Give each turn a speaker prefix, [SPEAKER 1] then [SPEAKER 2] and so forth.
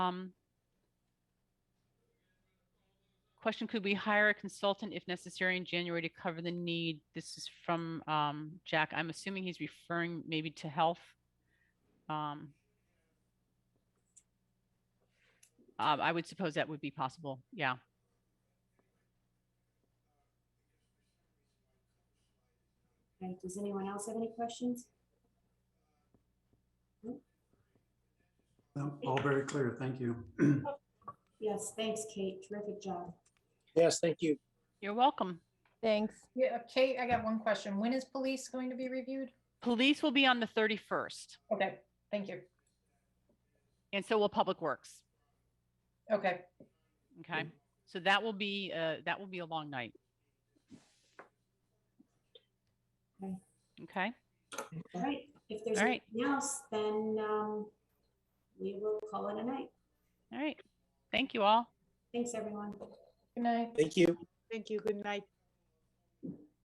[SPEAKER 1] Um, question, could we hire a consultant if necessary in January to cover the need? This is from, um, Jack. I'm assuming he's referring maybe to health. Um, uh, I would suppose that would be possible. Yeah.
[SPEAKER 2] Okay, does anyone else have any questions?
[SPEAKER 3] No, All very clear. Thank you.
[SPEAKER 2] Yes, thanks, Kate. Terrific job.
[SPEAKER 4] Yes, thank you.
[SPEAKER 1] You're welcome.
[SPEAKER 5] Thanks.
[SPEAKER 6] Yeah, Kate, I got one question. When is police going to be reviewed?
[SPEAKER 1] Police will be on the 31st,
[SPEAKER 6] Okay, thank you.
[SPEAKER 1] and so will Public Works.
[SPEAKER 6] Okay,
[SPEAKER 1] Okay, so that will be, uh, that will be a long night.
[SPEAKER 2] Okay.
[SPEAKER 1] Okay,
[SPEAKER 2] All right, if there's
[SPEAKER 1] All right.
[SPEAKER 2] anything else, then um, we will call it a night.
[SPEAKER 1] all right. Thank you all.
[SPEAKER 2] Thanks, everyone.
[SPEAKER 6] good night.
[SPEAKER 4] Thank you.
[SPEAKER 7] Thank you. Good night.